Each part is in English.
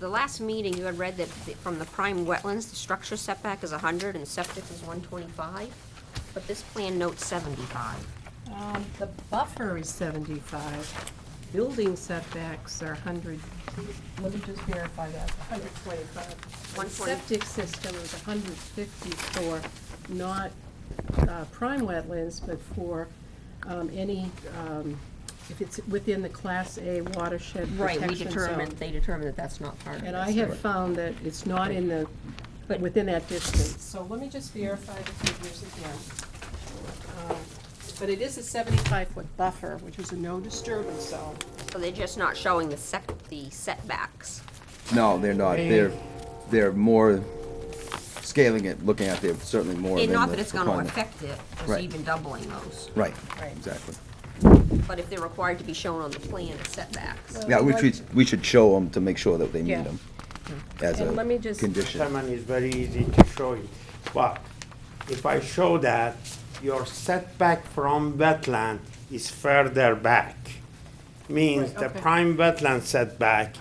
the last meeting, you had read that the- from the prime wetlands, the structure setback is 100 and septic is 125, but this plan notes 75. Um, The buffer is 75. Building setbacks are 100. Let me just verify that, 125. The 120. Septic system is 150 for not uh, prime wetlands, but for um, any, um, if it's within the Class A watershed We protection determined, zone. they determined that that's not part of this. And I have found that it's not in the, But- within that distance. So let me just verify the figures again. Um, But it is a seventy-five foot buffer, which is a no disturbance zone. So they're just not showing the sec, the setbacks. No, they're not. They're, they're more scaling it, looking at, they're certainly more And than not the that it's gonna requirement. affect it, just Right. even doubling those. Right, Right. exactly. But if they're required to be shown on the plan as setbacks. Yeah, we should, we should show them to make sure that they meet Yeah. them as And a let me just- condition. Someone is very easy to show you. But if I show that, your setback from wetland is further back. Means Right, the okay. prime wetland setback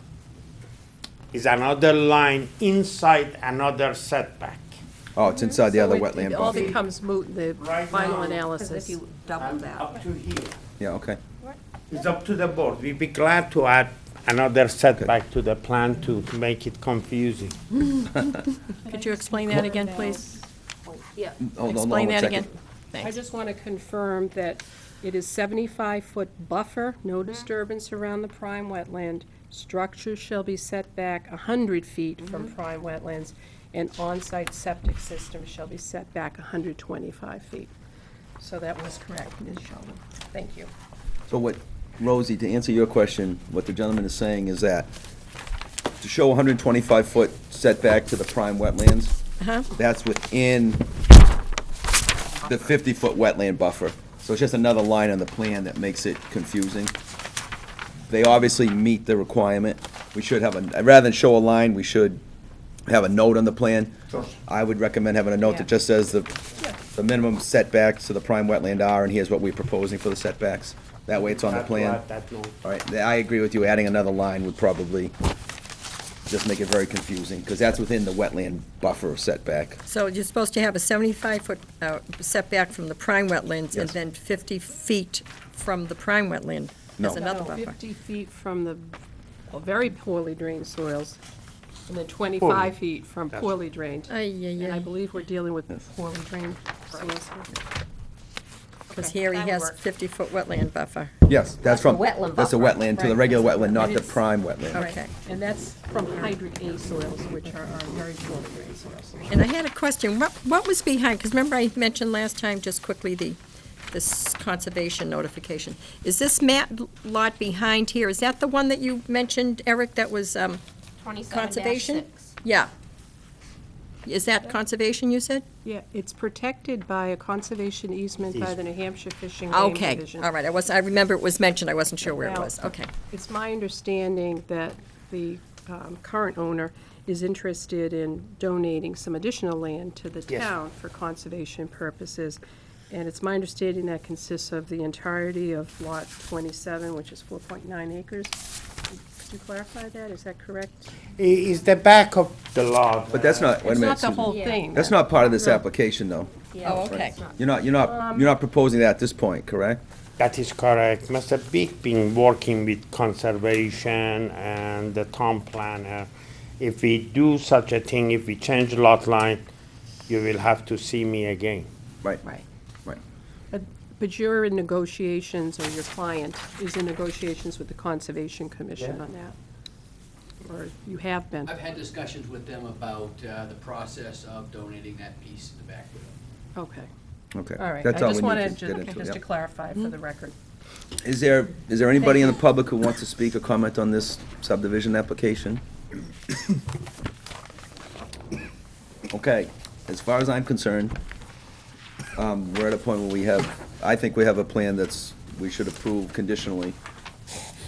is another line inside another setback. Oh, it's inside the So other it- wetland It all buffer. becomes moot in the Right final now- Because if analysis. you double I'm that, Up to here. Yeah, okay. It's up to the board. We'd be glad to add another setback to the plan to make it confusing. Could you explain that again, please? yeah, Hold on, hold on Explain one that again. second. I Thanks. just want to confirm that it is seventy-five foot buffer, no Mm-hmm. disturbance around the prime wetland. Structures shall be set back hundred feet from Mm-hmm. prime wetlands, and on-site septic system shall be set back hundred twenty-five feet. So that was correct, Ms. Sheldon. Thank you. So what, Rosie, to answer your question, what the gentleman is saying is that to show 125-foot setback to the prime wetlands, Uh-huh. that's within the 50-foot wetland buffer. So it's just another line on the plan that makes it confusing. They obviously meet the requirement. We should have a, rather than show a line, we should have a note on the plan. I would recommend having a note that Yeah. just says the, the minimum setbacks to the prime wetland are, and here's what we're proposing for the setbacks. That way it's on the Glad to plan. add that note. All right, th- I agree with you, adding another line would probably just make it very confusing, because that's within the wetland buffer setback. So you're supposed to have a 75-foot setback from the prime wetlands and Yes. then 50 feet from the prime wetland as No. another No, buffer. Fifty feet from the well, very poorly drained soils, and then twenty-five feet from That's- poorly drained. Ay, And I yeah, believe we're dealing with poorly drained soils. because Okay, here he that'll has work. 50-foot wetland buffer. Yes, that's from. the wetland That's a buffer. wetland, to the Right. regular wetland, not It the is. prime wetland. Okay. And that's from hydrant A soils, which are our very poorly drained soils. And I had a question. What, what was behind, because remember I mentioned last time, just quickly, the, this conservation notification. Is this map lot behind here, is that the one that you mentioned, Eric, that was, um, twenty-seven conservation? six. Yeah. Is that conservation, you said? Yeah, it's protected by a conservation easement by the New Hampshire Fishing Game Okay, Division. all right, I was, I remember it was mentioned, I wasn't sure where it Now- was, okay. It's my understanding that the um, current owner is interested in donating some additional land to the Yes. town for conservation purposes. And it's my understanding that consists of the entirety of Lot 27, which is 4.9 acres. Could you clarify that? Is that correct? I- Is the back of the lot. But that's not, wait a It's minute, not the Susan. whole thing. That's not part of this application, though. Oh, okay. You're not, you're not, Um, you're not proposing that at this point, correct? That is correct. Mr. Big been working with conservation and the town planner. If we do such a thing, if we change lot line, you will have to see me again. Right. Right. Right. But- But you're in negotiations, or your client is in negotiations with the Conservation Commission Yeah. on that? Or you have been? I've had discussions with them about uh, the process of donating that piece in the back widow. Okay. Okay. All right, I That's all we just need wanted to get to, into, just yeah. to clarify for the record. Is there, is there anybody in the public who wants to speak or comment on this subdivision application? Okay, as far as I'm concerned, um, we're at a point where we have, I think we have a plan that's, we should approve conditionally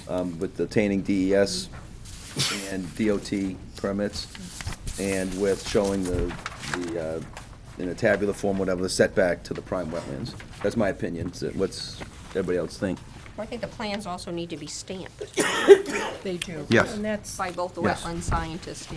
um, with obtaining DES and DOT permits, and with showing the, the, uh, in a tabular form, whatever, the setback to the prime wetlands. That's my opinion. So What's everybody else think? I think the plans also need to be stamped They do. Yes. And that's by both the Yes. wetland scientists